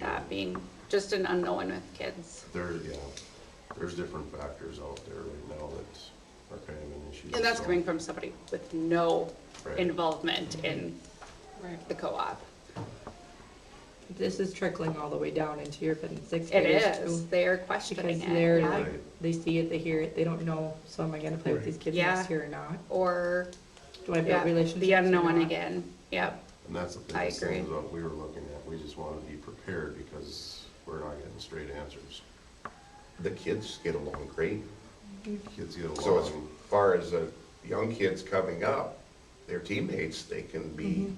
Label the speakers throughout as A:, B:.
A: that being just an unknown with kids.
B: There, yeah, there's different factors out there right now that are kind of an issue.
A: And that's
B: so-
A: coming from somebody with no
B: Right.
A: involvement in
C: Right.
A: the co-op.
C: This is trickling all the way down into your fifth and sixth
A: It
C: graders
A: is,
C: too.
A: they're questioning
C: Because
A: it,
C: they're
A: yeah.
C: like, they see it, they hear it, they don't know, so am I gonna play with these kids
A: Yeah.
C: next year or not?
A: Or,
C: Do I
A: yeah,
C: build relationships?
A: the
C: or
A: unknown
C: not?
A: again, yep,
B: And that's the
A: I
B: biggest thing is
A: agree.
B: what we were looking at, we just wanna be prepared because we're not getting straight answers.
D: the kids get along great.
B: Kids get
D: So as
B: along,
D: far as the young kids coming up, their teammates, they can be,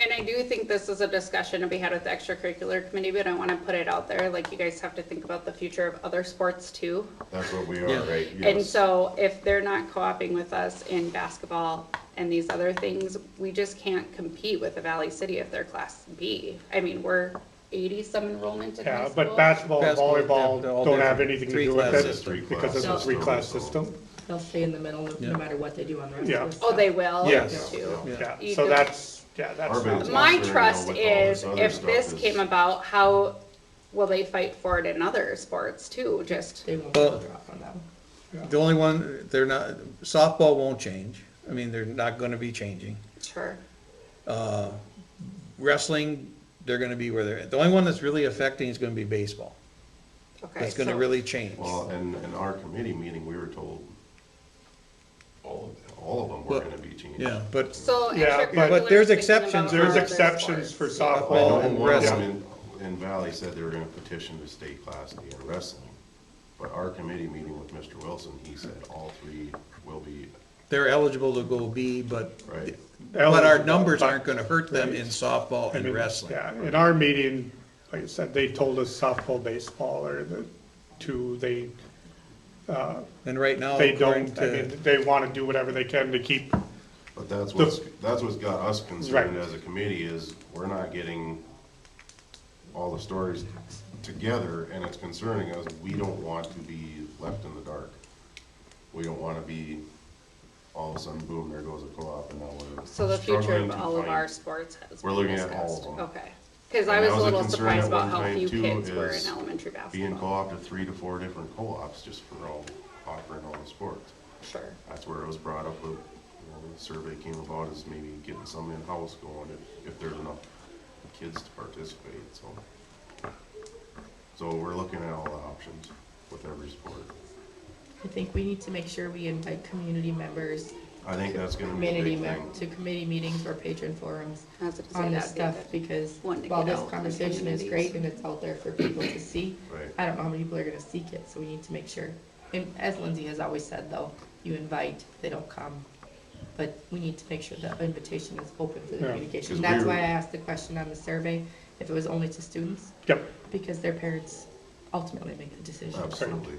A: And I do think this is a discussion to be had with the extracurricular committee, but I want to put it out there, like, you guys have to think about the future of other sports too.
B: that's what we are,
E: Yeah.
B: right?
A: And
B: Yes.
A: so if they're not co-oping with us in basketball and these other things, we just can't compete with the Valley City if they're class B. I mean, we're eighty-some enrollment in high
F: Yeah,
A: school.
F: but basketball and
E: Basketball,
F: volleyball
E: they're all
F: don't have
E: different.
F: anything to
E: Three
F: do with
E: class
B: system.
F: it because of the
A: Three
B: class
F: three-class
B: system.
F: system.
C: They'll stay in the middle, no-
E: Yeah.
C: no matter what they do on the rest
F: Yeah.
C: of the
A: Oh, they will?
F: Yes.
A: too.
F: Yeah,
A: You
F: so
A: don't-
F: that's, yeah, that's
B: Our
F: not.
B: biggest-
A: My
B: Well, sure,
A: trust
B: you know, with all this
A: is
B: other
A: if
B: stuff
A: this
B: is-
A: came about, how will they fight for it in other sports too? Just,
C: They won't
E: Well-
C: drop on them.
E: The only one, they're not, softball won't change. I mean, they're not gonna be changing.
A: sure.
E: Wrestling, they're gonna be where they're, the only one that's really affecting is gonna be baseball.
A: Okay.
E: That's gonna
A: so-
E: really change.
B: Well, and, in our committee meeting, we were told all of, all of them were
E: Well,
B: gonna be changed.
E: Yeah, but,
A: So.
F: Yeah,
A: extracurriculars
E: but- But there's
A: thinking
E: exceptions.
A: about
F: There's
A: other
F: exceptions for
A: sports.
F: softball
B: Well,
F: and
B: and
E: and
B: one of them
F: wrestling.
B: in, in Valley said they were gonna petition to stay class D in wrestling. But our committee meeting with Mr. Wilson, he said all three will be,
E: they're eligible to go B, but,
B: right?
E: but our numbers aren't gonna hurt them in softball
F: I
E: and
F: mean,
E: wrestling.
F: Yeah, in our meeting, like I said, they told us softball, baseball are the two, they,
E: And right now,
F: they
E: according
F: don't, I mean,
E: to,
F: they want to do whatever they can to keep,
B: But that's what's, that's what's got us concerned
F: Right.
B: as a committee is we're not getting all the stories together and it's concerning us. We don't want to be left in the dark. We don't wanna be, all of a sudden, boom, there goes a co-op and now we're
A: So the future
B: struggling
A: of
B: to
A: all of
B: find-
A: our sports has
B: We're
A: been
B: looking at all
A: discussed.
B: of them.
A: Okay, because I
B: And
A: was
B: that
A: a
B: was a
A: little
B: concern
A: surprised
B: at
A: about
B: one
A: how
B: time,
A: few
B: too,
A: kids were in
B: is
A: elementary basketball.
B: being co-op to three to four different co-ops just for all, offering all the sports.
A: Sure,
B: That's where it was brought up, with, you know, the survey came about is maybe getting some in-house going if, if there's enough kids to participate, so. So we're looking at all the options with every sport.
C: I think we need to make sure we invite community members,
B: I think that's gonna be a
C: community
B: big
C: mem-
B: thing.
C: to committee meetings or patron forums.
A: I was gonna say
C: on this
A: that'd be
C: stuff
A: good.
C: because
A: Wanting to
C: while
A: get
C: this
A: out in the
C: conversation is
A: communities.
C: great and it's out there for people to see,
B: Right.
C: I don't know how many people are gonna seek it, so we need to make sure. And as Lindsay has always said though, you invite, they don't come. But we need to make sure that invitation is open for the
F: Yeah.
C: communication.
B: 'Cause
C: That's
B: we're-
C: why I asked the question on the survey, if it was only to students,
F: yep,
C: because their parents ultimately make the decision.
B: Absolutely.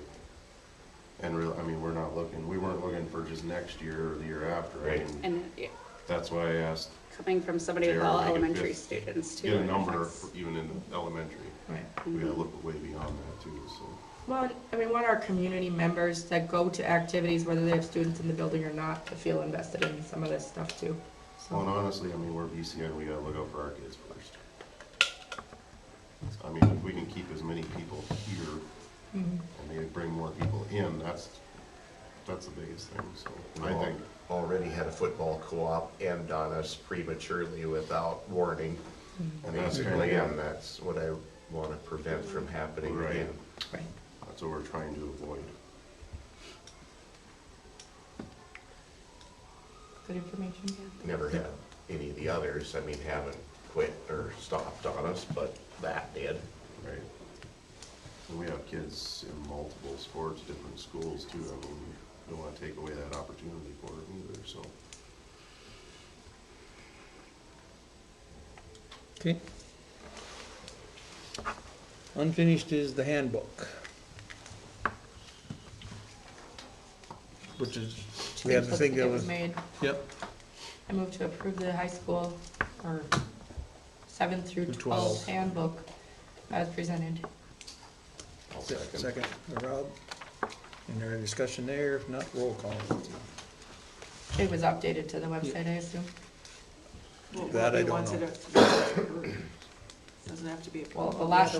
B: And real, I mean, we're not looking, we weren't looking for just next year or the year after, I
D: Right.
B: mean,
A: and yeah,
B: that's why I asked,
A: coming from somebody with
B: They are
A: all
B: making
A: elementary
B: fifth-
A: students too.
B: get a
A: it
B: number
A: affects-
B: for- even in the elementary.
C: Right.
B: We gotta look way beyond that too, so.
C: Well, and we want our community members that go to activities, whether they have students in the building or not, to feel invested in some of this stuff too.
B: Well, and honestly, I mean, we're BCN, we gotta look out for our kids first. I mean, if we can keep as many people here and they bring more people in, that's, that's the biggest thing, so I think.
D: already had a football co-op end on us prematurely without warning.
B: And that's kinda,
D: Basically, and
B: yeah,
D: that's what I wanna prevent from happening
B: Right.
D: again.
C: Right.
B: that's what we're trying to avoid.
C: Good information, yeah.
D: Never had any of the others, I mean, haven't quit or stopped on us, but that did.
B: Right. And we have kids in multiple sports, different schools too, I mean, we don't wanna take away that opportunity for them either, so.
E: okay. Unfinished is the handbook. Which is, we have the thing that
C: It was
E: was,
C: made,
E: yep,
C: I move to approve the high school, or seven through
E: Through
C: twelve
E: 12.
C: handbook as presented.
B: I'll
E: second, Rob. And there any discussion there? If not, roll call.
C: It was updated to the website, I assume.
G: Well,
E: That I
G: we
E: don't
G: wanted
E: know.
G: it- Doesn't have to be a.
C: Well, the
G: problem.
C: last